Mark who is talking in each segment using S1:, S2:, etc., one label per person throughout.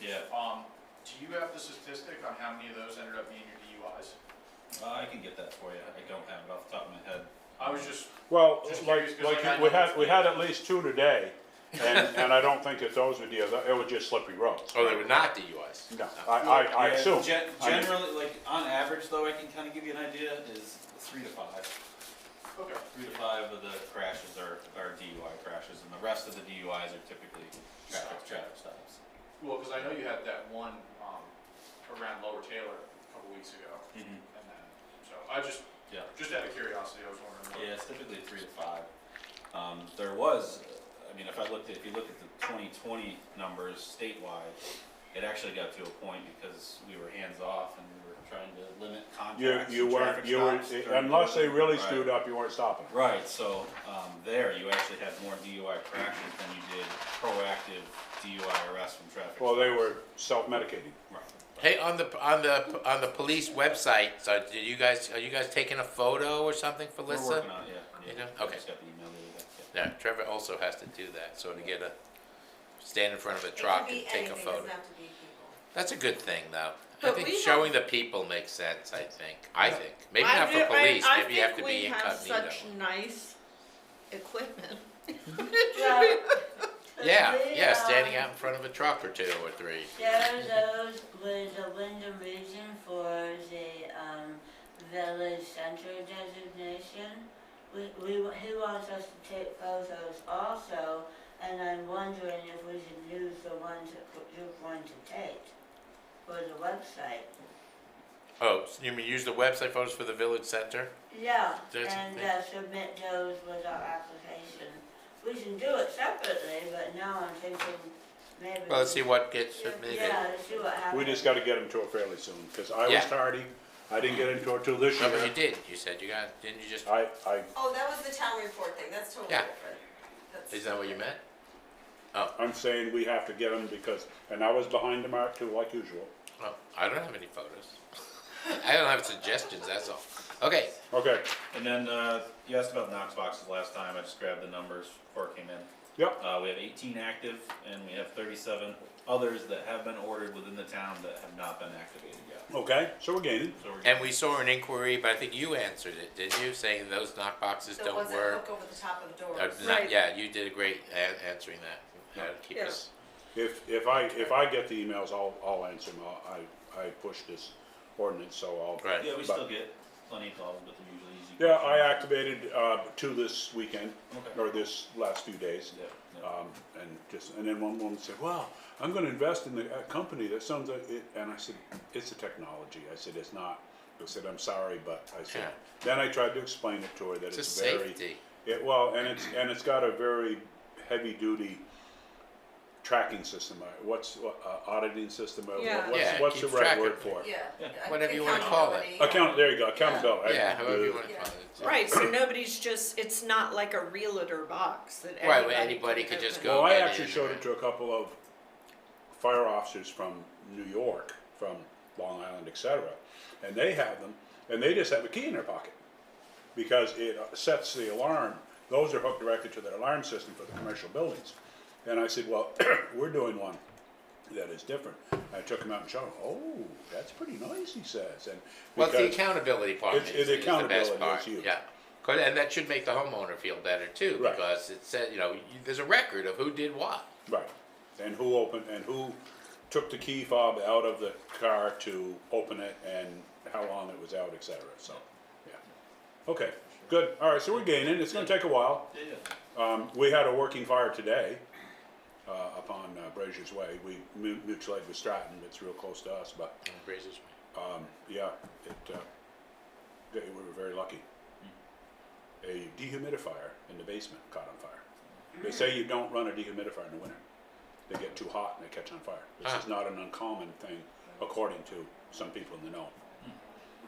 S1: But, um, do you have the statistic on how many of those ended up being your DUIs?
S2: Uh, I can get that for you, I don't have it off the top of my head.
S1: I was just,
S3: Well,
S1: Just curious,
S3: like,
S1: 'cause
S3: like
S1: I
S3: we
S1: know
S3: had,
S1: it's-
S3: we had at least two today, and, and I don't think that those were the other, it was just slippery roads.
S4: Oh, they were not DUIs.
S3: No, I, I, I
S2: Yeah,
S3: assume.
S2: gen-
S3: I mean-
S2: Generally, like, on average though, I can kinda give you an idea, is three to five.
S1: okay,
S2: Three to five of the crashes are, are DUI crashes, and the rest of the DUIs are typically traffic, traffic stops.
S1: well, cause I know you had that one, um, around Lower Taylor a couple weeks ago,
S2: Mm-hmm.
S1: and then, so I just,
S2: Yeah.
S1: just out of curiosity, I was wondering.
S2: Yeah, it's typically three to five. Um, there was, I mean, if I looked at, if you look at the twenty twenty numbers statewide, it actually got to a point because we were hands off and we were trying to limit
S3: You,
S2: contracts
S3: you
S2: and
S3: weren't,
S2: traffic
S3: you were, eh,
S2: stops during
S3: unless they
S2: COVID.
S3: really
S2: Right.
S3: screwed up, you weren't stopping.
S2: Right, so, um, there, you actually had more DUI crashes than you did proactive DUI arrests from traffic.
S3: Well, they
S2: stops.
S3: were self-medicating.
S2: Right.
S4: Hey, on the, on the, on the police website, so do you guys, are you guys taking a photo or something for
S2: We're
S4: Lissa?
S2: working on it, yeah.
S4: You
S2: yeah.
S4: do? Okay.
S2: Just got the email the other day, yeah.
S4: Yeah, Trevor also has to do that, so to get a, stand in front of a
S5: It
S4: truck
S5: could
S4: and
S5: be
S4: take a
S5: anything, doesn't
S4: photo.
S5: have to be people.
S4: That's a good thing, though. I
S6: But
S4: think
S6: we
S4: showing the people makes sense, I think, I think. Maybe
S6: I
S4: not
S6: do-
S4: for
S6: I-
S4: police,
S6: I
S4: maybe you have to
S6: think
S4: be
S6: We
S4: incognito.
S6: have such nice equipment.
S5: Well,
S4: Yeah,
S5: the,
S4: yeah, standing
S5: um,
S4: out in front of a truck or two or three.
S5: Sharon Rose was a window region for the um, village center designation. We, we, he wants us to take photos also, and I'm wondering if we should use the ones that you want to take for the website.
S4: Oh, so you mean use the website photos for the village center?
S5: Yeah,
S4: That's-
S5: and uh, submit those with our application. We can do it separately, but now I'm thinking maybe.
S4: Well, let's see what gets
S6: Yeah.
S4: submitted.
S5: Yeah, let's see what happens.
S3: We just gotta get them to it fairly soon, cause I was
S4: Yeah.
S3: tardy, I didn't get into it till this
S4: No, Oh, but you
S3: year.
S4: did, you said you got, didn't you just,
S3: I, I,
S6: Oh, that was the town report thing, that's totally
S4: Yeah.
S6: different. That's-
S4: is that what you meant?
S3: I'm saying we have to get them because, and I was behind the mark too, like usual.
S4: Oh, I don't have any photos. I don't have suggestions, that's all. Okay,
S3: Okay,
S2: And then, uh, you asked about Knox boxes last time, I just grabbed the numbers before it came in.
S3: yep,
S2: Uh, we have eighteen active and we have thirty-seven others that have been ordered within the town that have not been activated yet.
S3: okay, so we're gaining.
S2: So we're,
S4: and we saw an inquiry, but I think you answered it, didn't you, saying those knock boxes
S6: There
S4: don't
S6: wasn't
S4: work?
S6: look over the top of the
S4: Uh,
S6: doors.
S4: not-
S6: Right.
S4: Yeah, you did a great a- answering that, how to keep
S6: Yeah.
S4: us,
S3: If, if I, if I get the emails, I'll, I'll answer them, I'll- I, I push this ordinance, so I'll.
S4: Right.
S2: yeah, we
S3: but-
S2: still get plenty of calls, but they're usually easy.
S3: Yeah, I
S2: questions.
S3: activated, uh, two this weekend,
S2: Okay.
S3: or this last few days.
S2: Yeah, yeah.
S3: Um, and just, and then one woman said, wow, I'm gonna invest in the uh, company, that sounds like it, and I said, it's a technology, I said, it's not. I said, I'm sorry, but, I said,
S4: Yeah.
S3: then I tried to explain it to her that
S4: It's
S3: it's
S4: just
S3: very.
S4: safety.
S3: It, well, and it's, and it's got a very heavy-duty tracking system, Uh, what's, uh, auditing system, Uh,
S6: Yeah.
S3: what's,
S4: Yeah,
S3: what's the
S4: keeps
S3: right
S4: track
S3: word
S4: of
S3: for it?
S6: Yeah.
S2: Yeah.
S6: I-
S4: Whatever you wanna call it.
S6: accountability.
S3: Account, there you go, accountability.
S4: Yeah, however you wanna
S6: Yeah.
S4: call it.
S6: Right,
S7: Right, so nobody's just, it's not like a realtor box that
S4: Right, where
S7: anybody
S4: anybody
S7: can
S4: could just
S7: open.
S4: go.
S3: Well, I
S4: get
S3: actually
S4: in,
S3: showed
S4: right.
S3: it to a couple of fire officers from New York, from Long Island, et cetera, and they have them, and they just have a key in their pocket. Because it sets the alarm, those are hooked directly to their alarm system for the commercial buildings. And I said, well, we're doing one that is different. I took him out and showed him, oh, that's pretty nice, he says, and.
S4: Well, the
S3: because-
S4: accountability part
S3: It's-
S4: is,
S3: it's
S4: is the
S3: accountability,
S4: best
S3: it's
S4: part,
S3: huge.
S4: yeah. 'Cause- and that should make the homeowner feel better too,
S3: Right.
S4: because it said, you know, you, there's a record of who did what.
S3: Right, and who opened, and who took the key fob out of the car to open it, and how long it was out, et cetera, so, yeah. Okay, good, all right, so we're gaining, it's gonna take a while,
S2: Yeah, yeah.
S3: um, we had a working fire today, uh, upon uh, Brazier's Way, we mu- mutual aid with Stratton, it's real close to us, but,
S4: Raises-
S3: um, yeah, it, uh, they- we were very lucky. A dehumidifier in the basement caught on fire. They say you don't run a dehumidifier in the winter. They get too hot and they catch on fire. This is
S4: Ah.
S3: not an uncommon thing, according to some people in the know.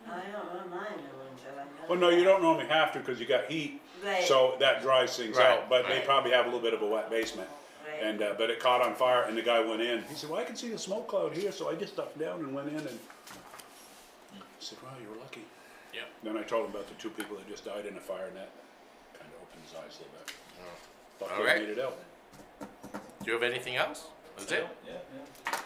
S5: I don't run mine in winter. I know
S3: Well, no, you
S5: that.
S3: don't normally have to because you got heat,
S5: Right.
S3: so that dries things
S4: Right,
S3: out, but they
S5: right.
S3: probably have a little bit of a wet basement.
S5: Right.
S3: And, uh, but it caught on fire and the guy went in. He said, well, I can see the smoke cloud here, so I just ducked down and went in and I said, wow, you were lucky.
S4: Yep.
S3: Then I told him about the two people that just died in a fire and that kind of opened his eyes a little bit.
S4: Oh.
S3: Thought
S4: All
S3: they
S4: right.
S3: made it out.
S4: Do you have anything else? That's it?
S2: Yeah, yeah.